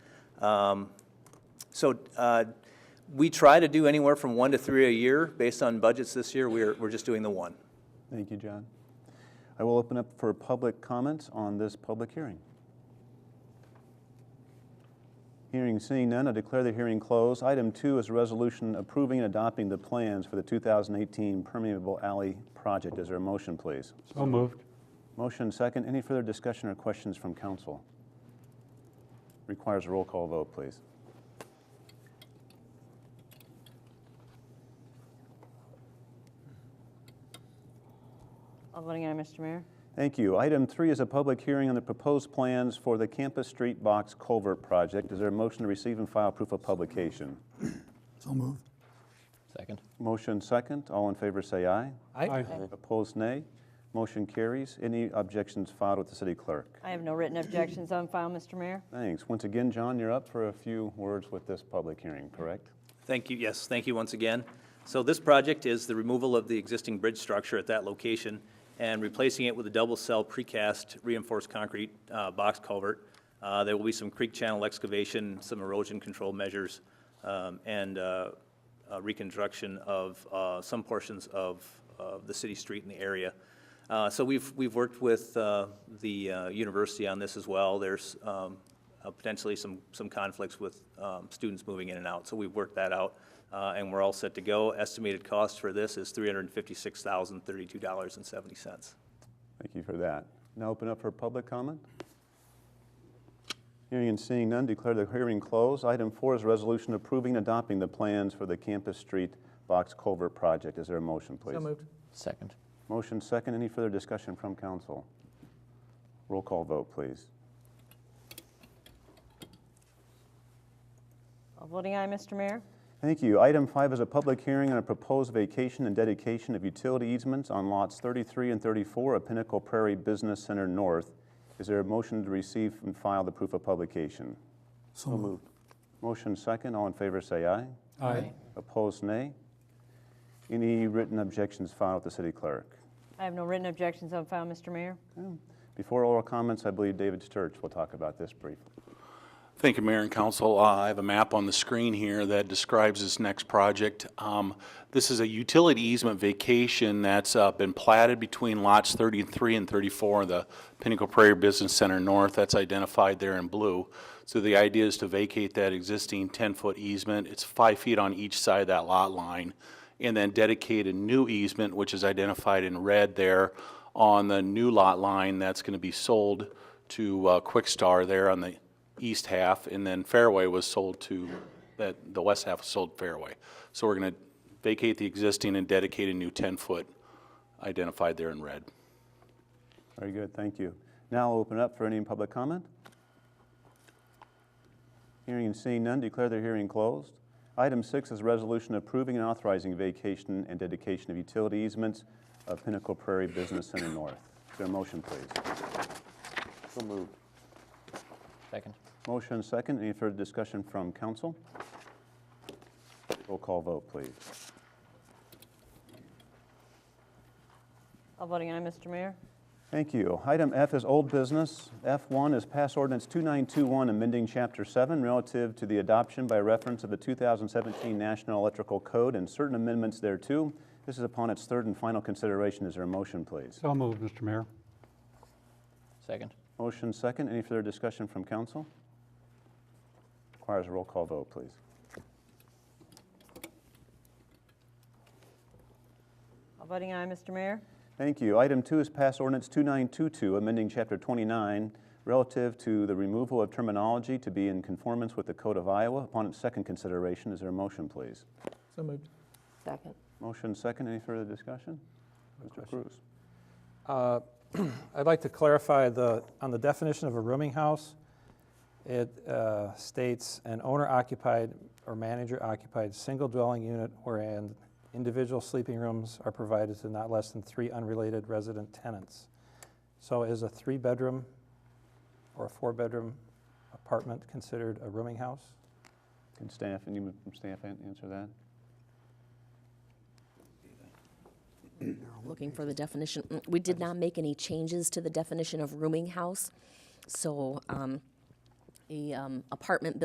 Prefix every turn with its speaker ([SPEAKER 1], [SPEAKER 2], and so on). [SPEAKER 1] Um, So uh, we try to do anywhere from one to three a year. Based on budgets this year, we're, we're just doing the one.
[SPEAKER 2] Thank you, John. I will open up for public comments on this public hearing. Hearing seeing none, I declare the hearing closed. Item two is a resolution approving and adopting the plans for the 2018 permeable alley project. Is there a motion, please?
[SPEAKER 3] So moved.
[SPEAKER 2] Motion second. Any further discussion or questions from council? Requires a roll call vote, please.
[SPEAKER 4] All voting aye, Mr. Mayor.
[SPEAKER 2] Thank you. Item three is a public hearing on the proposed plans for the Campus Street Box Culvert Project. Is there a motion to receive and file proof of publication?
[SPEAKER 5] So moved.
[SPEAKER 6] Second.
[SPEAKER 2] Motion second. All in favor say aye.
[SPEAKER 3] Aye.
[SPEAKER 2] Opposed, nay. Motion carries. Any objections filed with the city clerk?
[SPEAKER 4] I have no written objections on file, Mr. Mayor.
[SPEAKER 2] Thanks. Once again, John, you're up for a few words with this public hearing, correct?
[SPEAKER 1] Thank you, yes, thank you once again. So this project is the removal of the existing bridge structure at that location and replacing it with a double-cell precast reinforced concrete uh, box culvert. Uh, There will be some creek channel excavation, some erosion control measures, um, and uh, uh, reconstruction of uh, some portions of of the city street in the area. Uh, So we've, we've worked with uh, the uh, university on this as well. There's um, uh, potentially some, some conflicts with um, students moving in and out, so we've worked that out, uh, and we're all set to go. Estimated cost for this is $356,032.70.
[SPEAKER 2] Thank you for that. Now open up for public comment. Hearing and seeing none, declare the hearing closed. Item four is a resolution approving and adopting the plans for the Campus Street Box Culvert Project. Is there a motion, please?
[SPEAKER 6] Second.
[SPEAKER 2] Motion second. Any further discussion from council? Roll call vote, please.
[SPEAKER 4] All voting aye, Mr. Mayor.
[SPEAKER 2] Thank you. Item five is a public hearing on a proposed vacation and dedication of utility easements on lots 33 and 34 of Pinnacle Prairie Business Center North. Is there a motion to receive and file the proof of publication?
[SPEAKER 5] So moved.
[SPEAKER 2] Motion second. All in favor say aye.
[SPEAKER 3] Aye.
[SPEAKER 2] Opposed, nay. Any written objections filed with the city clerk?
[SPEAKER 4] I have no written objections on file, Mr. Mayor.
[SPEAKER 2] Before oral comments, I believe David Sturch will talk about this briefly.
[SPEAKER 7] Thank you, Mayor and Council. Uh, I have a map on the screen here that describes this next project. Um, This is a utility easement vacation that's uh, been platted between lots 33 and 34 of the Pinnacle Prairie Business Center North. That's identified there in blue. So the idea is to vacate that existing 10-foot easement. It's five feet on each side of that lot line. And then dedicate a new easement, which is identified in red there, on the new lot line that's going to be sold to uh, Quickstar there on the east half, and then Fairway was sold to, that, the west half was sold Fairway. So we're gonna vacate the existing and dedicate a new ten-foot identified there in red.
[SPEAKER 2] Very good, thank you. Now I'll open up for any public comment. Hearing and seeing none, declare the hearing closed. Item six is resolution approving and authorizing vacation and dedication of utility easements of Pinnacle Prairie Business Center North. Is there a motion, please?
[SPEAKER 5] So moved.
[SPEAKER 6] Second.
[SPEAKER 2] Motion second, any further discussion from council? Roll call vote, please.
[SPEAKER 4] All voting aye, Mr. Mayor.
[SPEAKER 2] Thank you. Item F is old business. F1 is Pass Ordinance 2921, amending Chapter 7 relative to the adoption by reference of the 2017 National Electrical Code and certain amendments thereto. This is upon its third and final consideration. Is there a motion, please?
[SPEAKER 3] So moved, Mr. Mayor.
[SPEAKER 6] Second.
[SPEAKER 2] Motion second. Any further discussion from council? Requires a roll call vote, please.
[SPEAKER 4] All voting aye, Mr. Mayor.
[SPEAKER 2] Thank you. Item two is Pass Ordinance 2922, amending Chapter 29 relative to the removal of terminology to be in conformance with the Code of Iowa upon its second consideration. Is there a motion, please?
[SPEAKER 5] So moved.
[SPEAKER 4] Second.
[SPEAKER 2] Motion second. Any further discussion? Mr. Cruz.
[SPEAKER 8] Uh, I'd like to clarify the, on the definition of a rooming house, it uh, states an owner occupied or manager occupied single dwelling unit wherein individual sleeping rooms are provided to not less than three unrelated resident tenants. So is a three-bedroom or a four-bedroom apartment considered a rooming house?
[SPEAKER 2] Can staff, and you from staff an- answer that?
[SPEAKER 9] Looking for the definition. Mm, We did not make any changes to the definition of rooming house. So um, a um, apartment